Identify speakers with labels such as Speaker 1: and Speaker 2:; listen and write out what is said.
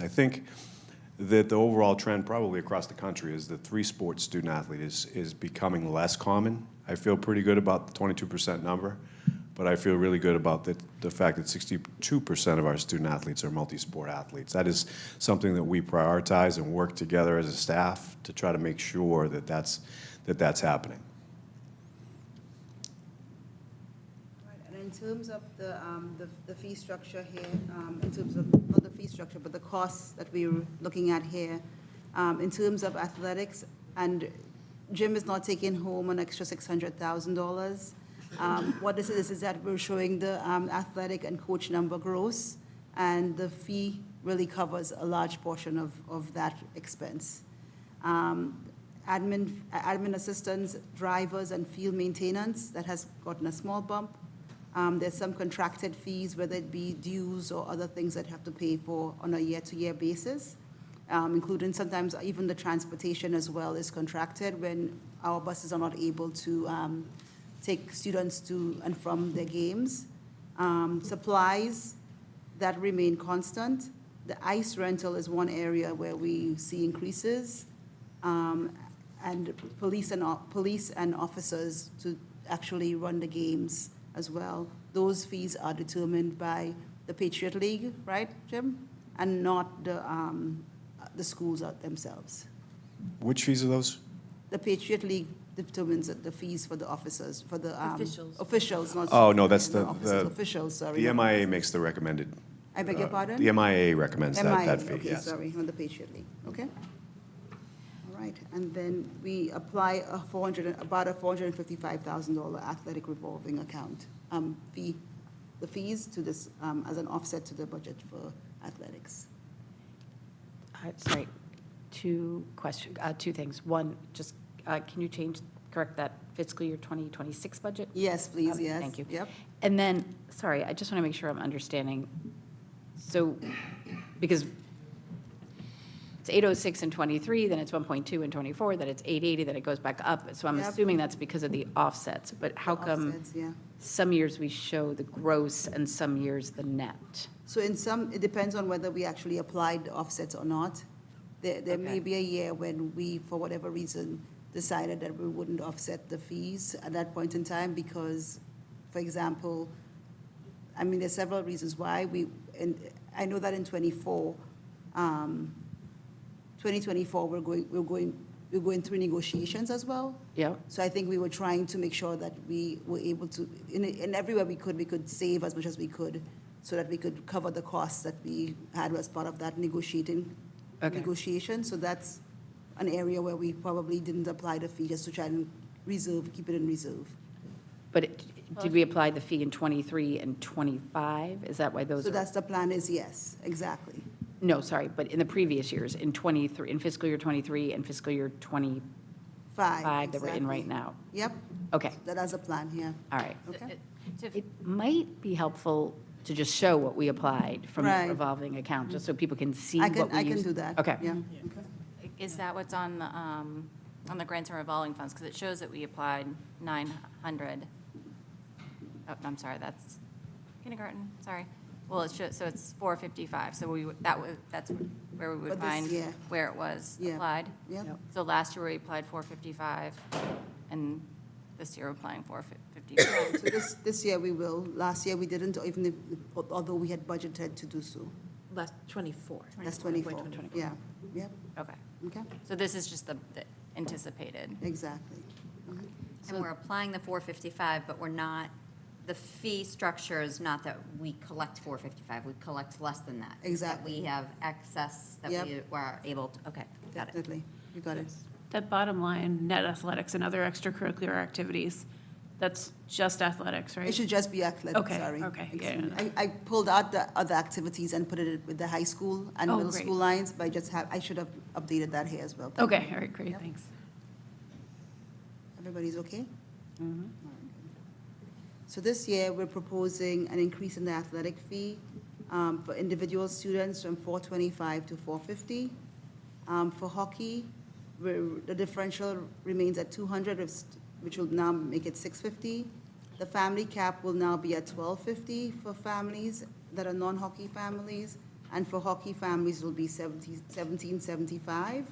Speaker 1: I think that the overall trend, probably across the country, is that three sport student athlete is, is becoming less common. I feel pretty good about the 22% number, but I feel really good about the, the fact that 62% of our student athletes are multi sport athletes. That is something that we prioritize and work together as a staff to try to make sure that that's, that that's happening.
Speaker 2: Right, And in terms of the, um, the- the fee structure here, um, in terms of, not the fee structure, but the costs that we're looking at here, um, in terms of athletics, and Jim is not taking home an extra $600,000. Um, What this is, is that we're showing the um, athletic and coach number gross, and the fee really covers a large portion of, of that expense. Um, Admin, admin assistants, drivers, and field maintenance, that has gotten a small bump. Um, There's some contracted fees, whether it be dues or other things that have to pay for on a year-to-year basis, um, including sometimes even the transportation as well is contracted when our buses are not able to um, take students to and from their games. Um, Supplies, that remain constant. The ice rental is one area where we see increases. um, And police and, o- police and officers to actually run the games as well. Those fees are determined by the Patriot League, right, Jim? And not the, um, the schools out themselves.
Speaker 1: Which fees are those?
Speaker 2: The Patriot League determines the- the fees for the officers, for the. um,
Speaker 3: Officials.
Speaker 2: Officials, not.
Speaker 1: Oh, no, that's
Speaker 2: not
Speaker 1: the-
Speaker 2: officers,
Speaker 1: the-
Speaker 2: Officials, sorry.
Speaker 1: The
Speaker 2: not-
Speaker 1: MIA makes the recommended.
Speaker 2: I beg your
Speaker 1: uh,
Speaker 2: pardon?
Speaker 1: The MIA recommends that, that
Speaker 2: MIA,
Speaker 1: fee,
Speaker 2: okay,
Speaker 1: yes.
Speaker 2: sorry, on the Patriot League, okay? All right, and then we apply a four hundred, about a four hundred and fifty-five thousand dollar athletic revolving account, um, fee, the fees to this, um, as an offset to the budget for athletics.
Speaker 3: Uh, Sorry, two question, uh, two things. One, just, uh, can you change, correct that fiscal year 2026 budget?
Speaker 2: Yes, please,
Speaker 3: Um,
Speaker 2: yes.
Speaker 3: Thank you.
Speaker 2: Yep,
Speaker 3: And then, sorry, I just want to make sure I'm understanding. So, because it's 806 and 23, then it's 1.2 and 24, then it's 880, then it goes back up. So I'm
Speaker 2: Yep.
Speaker 3: assuming that's because of the offsets, but how come
Speaker 2: offsets, yeah.
Speaker 3: some years we show the gross and some years the net?
Speaker 2: So in some, it depends on whether we actually applied the offsets or not. There, there may
Speaker 3: Okay.
Speaker 2: be a year when we, for whatever reason, decided that we wouldn't offset the fees at that point in time because, for example, I mean, there's several reasons why we, and I know that in twenty-four, um, twenty twenty-four, we're going, we're going, we're going through negotiations as well.
Speaker 3: Yeah?
Speaker 2: So I think we were trying to make sure that we were able to, in, in everywhere we could, we could save as much as we could so that we could cover the costs that we had as part of that negotiating,
Speaker 3: Okay.
Speaker 2: negotiation. So that's an area where we probably didn't apply the fee, just to try and reserve, keep it in reserve.
Speaker 3: But it- did we apply the fee in '23 and '25? Is that why those
Speaker 2: So
Speaker 3: are?
Speaker 2: that's the plan is yes, exactly.
Speaker 3: No, sorry, but in the previous years, in '23, in fiscal year '23 and fiscal year '25
Speaker 2: Five.
Speaker 3: that we're in right
Speaker 2: exactly.
Speaker 3: now?
Speaker 2: Yep,
Speaker 3: Okay,
Speaker 2: that has a plan, yeah.
Speaker 3: all right.
Speaker 2: Okay.
Speaker 3: It might be helpful to just show what we applied from the
Speaker 2: Right.
Speaker 3: revolving account, just so people can see
Speaker 2: I
Speaker 3: what we
Speaker 2: can,
Speaker 3: used.
Speaker 2: I can do that.
Speaker 3: Okay.
Speaker 2: Yeah.
Speaker 4: Is that what's on the, um, on the grants and revolving funds? Because it shows that we applied 900. Oh, I'm sorry, that's kindergarten, sorry. Well, it shows, so it's 455, so we, would- that would, that's where we
Speaker 2: For
Speaker 4: would
Speaker 2: this
Speaker 4: find
Speaker 2: year.
Speaker 4: where it was
Speaker 2: Yeah.
Speaker 4: applied.
Speaker 2: Yep,
Speaker 3: Yep.
Speaker 4: So last year we applied 455, and this year we're applying 455.
Speaker 2: so this, this year we will. Last year we didn't, even if, although we had budgeted to do so.
Speaker 5: Last 24.
Speaker 2: That's 24, yeah, yep,
Speaker 4: Okay,
Speaker 2: okay,
Speaker 4: so this is just the the anticipated.
Speaker 2: exactly.
Speaker 6: And we're applying the 455, but we're not, the fee structure is not that we collect 455, we collect less than that. It's that
Speaker 2: Exactly.
Speaker 6: We have excess that
Speaker 2: Yep.
Speaker 6: we are able to, okay, got it.
Speaker 2: Definitely, you got it.
Speaker 7: That bottom line, net athletics and other extracurricular activities, that's just athletics, right?
Speaker 2: It should just be athletic,
Speaker 7: Okay,
Speaker 2: sorry.
Speaker 7: okay, yeah,
Speaker 2: Excuse me.
Speaker 7: yeah,
Speaker 2: I, I pulled out the other activities and put it with the high school and
Speaker 7: Oh,
Speaker 2: middle
Speaker 7: great.
Speaker 2: school lines, but I just have, I should have updated that here as well. Thank
Speaker 7: Okay,
Speaker 2: you.
Speaker 7: all right, great,
Speaker 2: Yep.
Speaker 7: thanks.
Speaker 2: Everybody's okay? All right, good. So this year, we're proposing an increase in the athletic fee um, for individual students from 425 to 450. Um, For hockey, we're- the differential remains at 200, of st- which will now make it 650. The family cap will now be at 1250 for families that are non-hockey families, And for hockey families, it'll be 17 1775.